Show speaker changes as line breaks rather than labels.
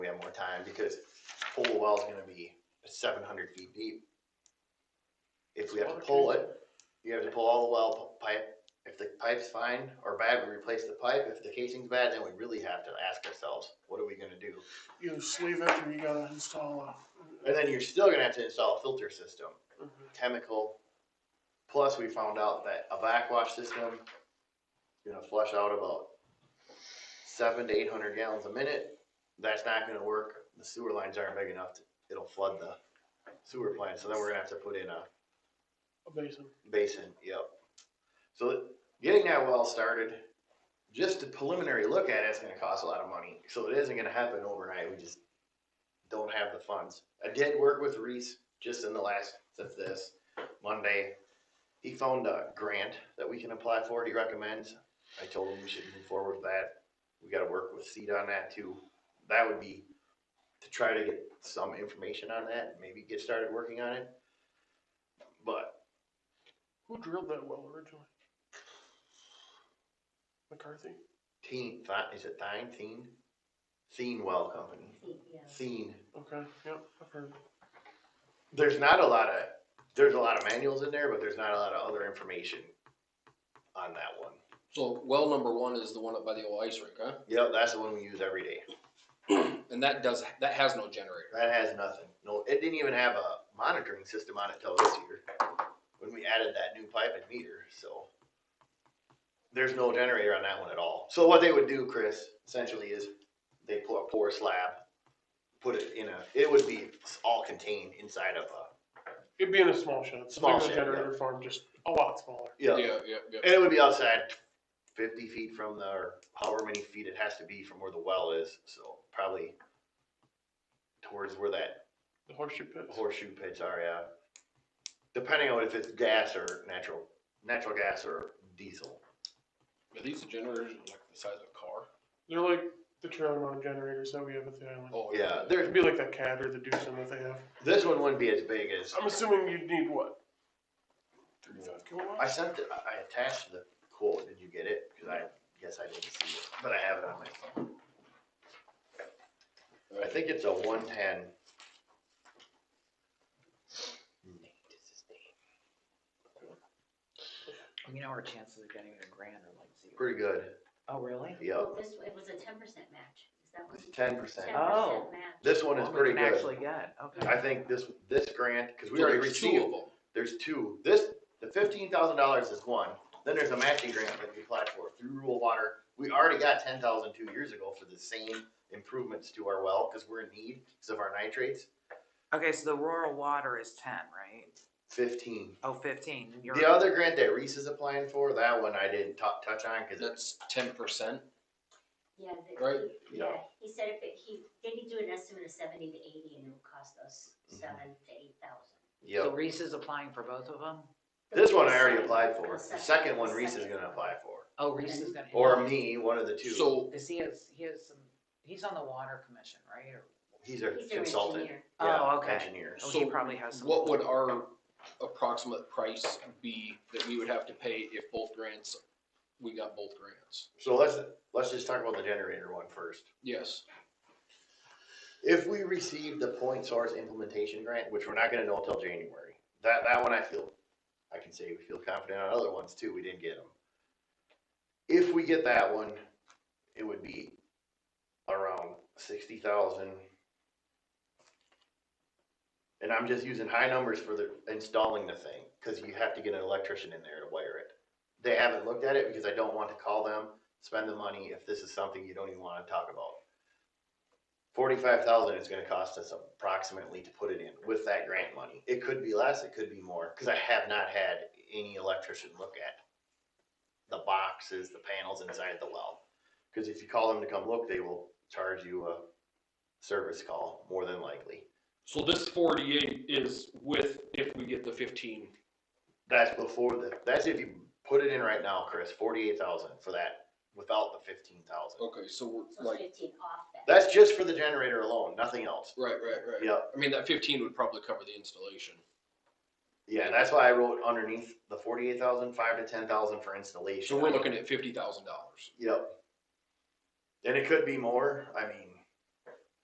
have more time because pull the well is gonna be seven hundred feet deep. If we have to pull it, you have to pull all the well p- pipe. If the pipe's fine or bad, we replace the pipe. If the casing's bad, then we really have to ask ourselves, what are we gonna do?
You sleeve it or you gotta install a.
And then you're still gonna have to install a filter system, chemical. Plus, we found out that a backwash system is gonna flush out about seven to eight hundred gallons a minute. That's not gonna work. The sewer lines aren't big enough. to- It'll flood the sewer plant. So then we're gonna have to put in a
A basin.
basin, yep. So getting that well started, just a preliminary look at it's gonna cost a lot of money, so it isn't gonna happen overnight, we just don't have the funds. I did work with Reese just in the last, since this, Monday. He found a grant that we can apply for, he recommends, I told him we should move forward with that. We gotta work with Seed on that too, that would be to try to get some information on that, maybe get started working on it. But
Who drilled that well originally? McCarthy?
Teen, Thi- is it Thine, Thine? Thine Well Company, Thine.
Okay, yep, I've heard.
There's not a lot of, there's a lot of manuals in there, but there's not a lot of other information on that one.
So well number one is the one up by the old ice rink, huh?
Yep, that's the one we use every day.
And that does that has no generator.
That has nothing. No, it didn't even have a monitoring system on it till this year, when we added that new pipe and meter, so. There's no generator on that one at all. So what they would do, Chris, essentially is they pour a pour slab, put it in a, it would be all contained inside of a
It'd be in a small shed. It's
Small
like a
shed,
Generator farm, just a lot smaller.
Yeah,
Yeah, yeah, yeah.
and it would be outside fifty feet from the, or however many feet it has to be from where the well is, so probably towards where that
The horseshoe pits.
horseshoe pits are, yeah. Depending on if it's gas or natural, natural gas or diesel.
Are these generators like the size of a car?
They're like the trailer mounted generators that we have at the island.
Oh
Yeah,
It'd
there,
be like that cat or the Doosan that they have.
this one wouldn't be as big as,
I'm assuming you'd need what? Thirty-five
I
kilowatts?
sent, it- I I attached the quote, did you get it? Cause I, guess I didn't see it, but I have it on my phone. I think it's a one ten.
You know, our chances of getting a grant are like zero.
Pretty good,
Oh, really?
yep.
This, it was a ten percent match, is that what?
It's ten percent.
Ten
Oh.
percent match.
This one is
Well, we
pretty
can
good.
Actually get,
I
okay.
think this, this grant, cause we
So
already
there's two of
received,
them.
there's two, this, the fifteen thousand dollars is one, then there's a matching grant that we applied for through rural water. We already got ten thousand two years ago for the same improvements to our well, cause we're in need, cause of our nitrates,
Okay, so the rural water is ten, right?
fifteen.
Oh, fifteen, you're.
The other grant that Reese is applying for, that one I didn't tou- touch on, cause it-
That's ten percent.
Yeah, that
Right,
he-
yeah.
yeah, he said if it, he, they could do an estimate of seventy to eighty and it would cost us
Mhm.
seven to eight thousand.
So
yep,
Reese is applying for both of them?
this one I already applied for, the second one Reese is gonna apply for,
Oh, Reese is gonna.
or me, one of the two.
So
Cause he has, he has some, he's on the water commission, right? Or-
He's a
He's an
consultant,
engineer.
yeah,
Oh, okay.
engineer.
Oh, he
So
probably has some.
what would our approximate price be that we would have to pay if both grants, we got both grants?
So let's, let's just talk about the generator one first.
Yes,
If we receive the point source implementation grant, which we're not gonna know until January, that, that one I feel, I can say we feel confident on other ones too, we didn't get them. If we get that one, it would be around sixty thousand. And I'm just using high numbers for the, installing the thing, cause you have to get an electrician in there to wire it. They haven't looked at it because I don't want to call them, spend the money if this is something you don't even wanna talk about forty-five thousand is gonna cost us approximately to put it in with that grant money. It could be less, it could be more, cause I have not had any electrician look at the boxes, the panels inside the well. Cause if you call them to come look, they will charge you a service call, more than likely.
So this forty-eight is with, if we get the fifteen,
That's before the, that's if you put it in right now, Chris, forty-eight thousand for that, without the fifteen thousand.
okay, so we're
So it's
like,
fifteen off that.
That's just for the generator alone, nothing else.
right, right, right.
Yeah,
I mean, that fifteen would probably cover the installation.
Yeah, that's why I wrote underneath the forty-eight thousand, five to ten thousand for installation.
So we're looking at fifty thousand dollars.
Yep. And it could be more, I mean,